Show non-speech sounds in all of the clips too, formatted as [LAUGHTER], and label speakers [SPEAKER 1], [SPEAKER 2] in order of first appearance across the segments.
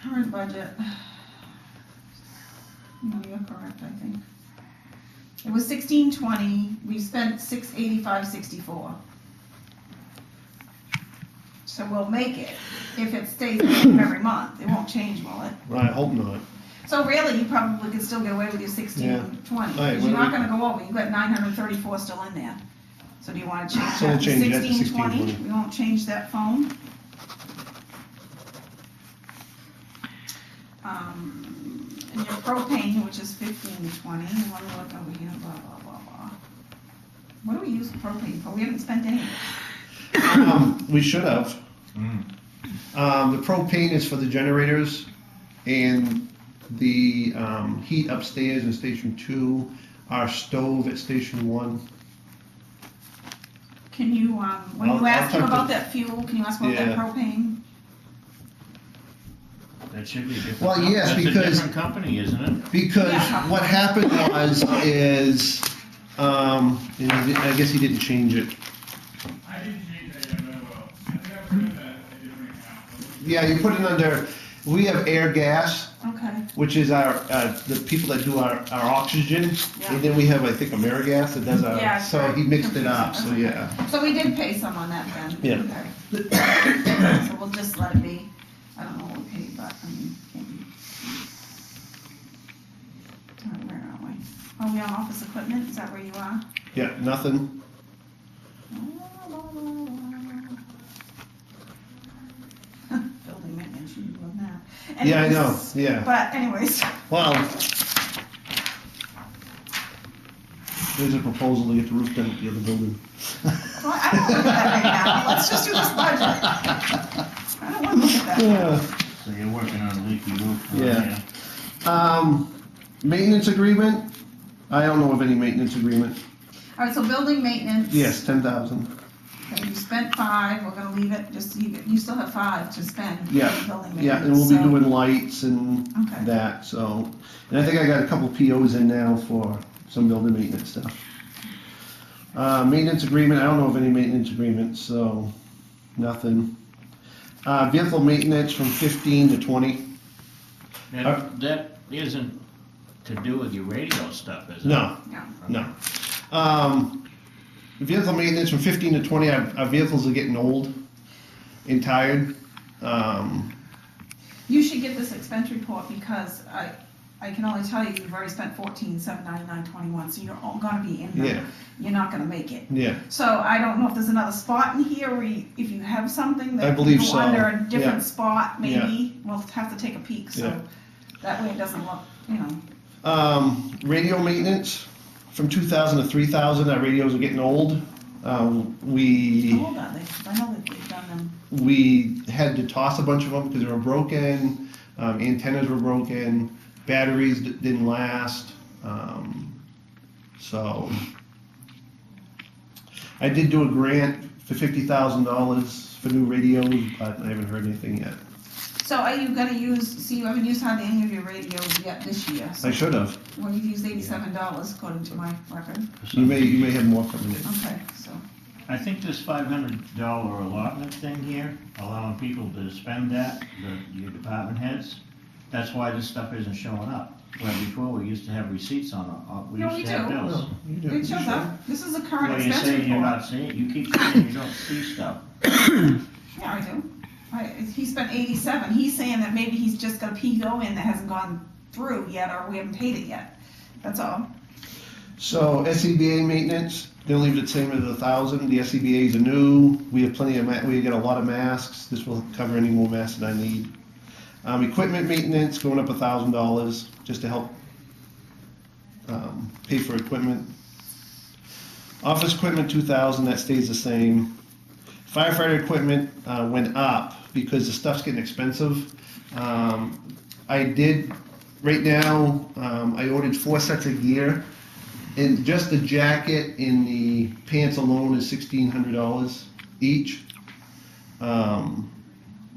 [SPEAKER 1] current budget. [SIGHS] No, you're correct, I think. It was sixteen twenty, we spent six eighty-five sixty-four. So we'll make it if it stays the same every month, it won't change, will it?
[SPEAKER 2] Well, I hope not.
[SPEAKER 1] So really, you probably could still get away with your sixteen twenty,
[SPEAKER 2] All right,
[SPEAKER 1] because you're
[SPEAKER 2] what
[SPEAKER 1] not
[SPEAKER 2] do we-
[SPEAKER 1] gonna go over, you've got nine hundred thirty-four still in there. So do you wanna change
[SPEAKER 2] So we'll
[SPEAKER 1] that to
[SPEAKER 2] change that to
[SPEAKER 1] sixteen twenty?
[SPEAKER 2] 1620.
[SPEAKER 1] We won't change that phone. Um, and your propane, which is fifteen twenty, you wanna look over here, blah, blah, blah, blah. What do we use propane for? We haven't spent any.
[SPEAKER 2] Um, [CLEARS THROAT] we should have.
[SPEAKER 3] Mm.
[SPEAKER 2] Um, the propane is for the generators and the, um, heat upstairs in station two, our stove at station one.
[SPEAKER 1] Can you, um, when
[SPEAKER 2] I'll-
[SPEAKER 1] you
[SPEAKER 2] I'll
[SPEAKER 1] ask him
[SPEAKER 2] talk to-
[SPEAKER 1] about that fuel, can you ask about that
[SPEAKER 2] Yeah.
[SPEAKER 1] propane?
[SPEAKER 3] That should be a different.
[SPEAKER 2] Well,
[SPEAKER 3] com-
[SPEAKER 2] yes,
[SPEAKER 3] that's
[SPEAKER 2] because-
[SPEAKER 3] a different company, isn't it?
[SPEAKER 2] Because
[SPEAKER 1] Yeah.
[SPEAKER 2] what happened was, is, um, and he di- I guess he didn't change it.
[SPEAKER 4] I didn't change that, I know, I think I put in that, a different account.
[SPEAKER 2] Yeah, you put it under, we have air gas,
[SPEAKER 1] Okay.
[SPEAKER 2] which is our, uh, the people that do our, our oxygen.
[SPEAKER 1] Yeah.
[SPEAKER 2] And then we have, I think, Amerigas that does
[SPEAKER 1] Yeah,
[SPEAKER 2] our, so he mixed it up, so
[SPEAKER 1] confusing.
[SPEAKER 2] yeah.
[SPEAKER 1] So we did pay some on that then?
[SPEAKER 2] Yeah.
[SPEAKER 1] Okay. [COUGHS] So we'll just let it be, I don't know what we paid, but, I mean, can. All right, Where are we? Are we on office equipment, is that where you are? [LAUGHS]
[SPEAKER 2] Yeah, nothing.
[SPEAKER 1] Building maintenance, you love that.
[SPEAKER 2] Yeah, I know,
[SPEAKER 1] Anyways,
[SPEAKER 2] yeah.
[SPEAKER 1] But anyways, [LAUGHS]
[SPEAKER 2] Well, there's a proposal to get the roof done at the other building.
[SPEAKER 1] well, I don't look at that right now, let's just do this budget, I don't wanna look at that.
[SPEAKER 2] [LAUGHS] Yeah.
[SPEAKER 3] So you're working on a leaky roof. huh?
[SPEAKER 2] Yeah. Um, maintenance agreement? I don't know of any maintenance agreement.
[SPEAKER 1] All right, so building maintenance.
[SPEAKER 2] Yes, ten thousand.
[SPEAKER 1] Okay, you spent five, we're gonna leave it, just, you, you still have five to spend. for
[SPEAKER 2] Yeah,
[SPEAKER 1] building
[SPEAKER 2] Yeah, and
[SPEAKER 1] maintenance,
[SPEAKER 2] we'll be
[SPEAKER 1] so-
[SPEAKER 2] doing lights and
[SPEAKER 1] Okay.
[SPEAKER 2] that, so. And I think I got a couple POs in now for some building maintenance stuff. Uh, maintenance agreement, I don't know of any maintenance agreements, so nothing. Uh, vehicle maintenance from fifteen to twenty. Uh,
[SPEAKER 3] That, that isn't to do with your radio stuff, is it?
[SPEAKER 2] No,
[SPEAKER 1] Yeah.
[SPEAKER 2] no. Um, vehicle maintenance from 15 to 20, our, our vehicles are getting old and tired. Um,
[SPEAKER 1] You should get this expense report, because I, I can only tell you, you've already spent fourteen, seven ninety-nine, twenty-one, so you're all gonna be in
[SPEAKER 2] Yeah.
[SPEAKER 1] there. You're not gonna make it.
[SPEAKER 2] yeah,
[SPEAKER 1] So I don't know if there's another spot in here, where you- if you have something
[SPEAKER 2] I
[SPEAKER 1] that
[SPEAKER 2] believe
[SPEAKER 1] you
[SPEAKER 2] so,
[SPEAKER 1] under a
[SPEAKER 2] yeah.
[SPEAKER 1] different spot,
[SPEAKER 2] Yeah.
[SPEAKER 1] maybe, we'll have to take a peek,
[SPEAKER 2] Yeah.
[SPEAKER 1] so. That way it doesn't look, you know,
[SPEAKER 2] um, radio maintenance from 2000 to 3000, our radios are getting old. Um, we.
[SPEAKER 1] hold on, they, I know that they've done them.
[SPEAKER 2] we had to toss a bunch of them because they were broken, um, antennas were broken, batteries d- didn't last. Um, so I did do a grant for fifty thousand dollars for new radios, but I haven't heard anything yet.
[SPEAKER 1] So are you gonna use, see, you haven't used hardly any of your radios yet this year, so,
[SPEAKER 2] I should have.
[SPEAKER 1] well, you've used eighty-seven dollars according to my record,
[SPEAKER 2] You may you may have more coming in.
[SPEAKER 1] okay, so.
[SPEAKER 3] I think this five hundred dollar allotment thing here, allowing people to spend that, the, your department heads, that's why this stuff isn't showing up. Where before, we used to have receipts on, uh, we
[SPEAKER 1] No,
[SPEAKER 3] used
[SPEAKER 1] we
[SPEAKER 3] to have
[SPEAKER 1] do.
[SPEAKER 3] bills.
[SPEAKER 2] You do-
[SPEAKER 1] It shows up, this is a current
[SPEAKER 3] Well, you're
[SPEAKER 1] expense
[SPEAKER 3] saying you're
[SPEAKER 1] report.
[SPEAKER 3] not seeing, you keep saying you don't see stuff.
[SPEAKER 1] Yeah, I do, I, he spent eighty-seven, he's saying that maybe he's just got a PO in that hasn't gone through yet, or we haven't paid it yet, that's all.
[SPEAKER 2] So SCBA maintenance, gonna leave it the same as a thousand. The E SCBA's are new. We have plenty of, ma- we got a lot of masks. This will cover any more masks that I need. Um, equipment maintenance going up a thousand dollars just to help um, pay for equipment. Office equipment, two thousand, that stays the same. Firefighter equipment uh, went up because the stuff's getting expensive. Um, I did, right now, um, I ordered four sets of gear. And just the jacket and the pants alone is sixteen hundred dollars each. Um,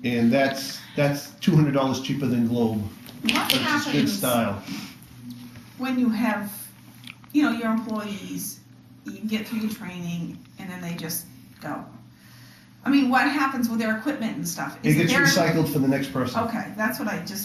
[SPEAKER 2] and that's, that's two hundred dollars cheaper than Globe,
[SPEAKER 1] What
[SPEAKER 2] which is good
[SPEAKER 1] happens
[SPEAKER 2] style.
[SPEAKER 1] when you have, you know, your employees, you get through your training, and then they just go?
[SPEAKER 2] I mean, what happens with their equipment and stuff?
[SPEAKER 1] It
[SPEAKER 2] Is
[SPEAKER 1] gets
[SPEAKER 2] there-
[SPEAKER 1] recycled for the next person.
[SPEAKER 2] Okay, that's what I just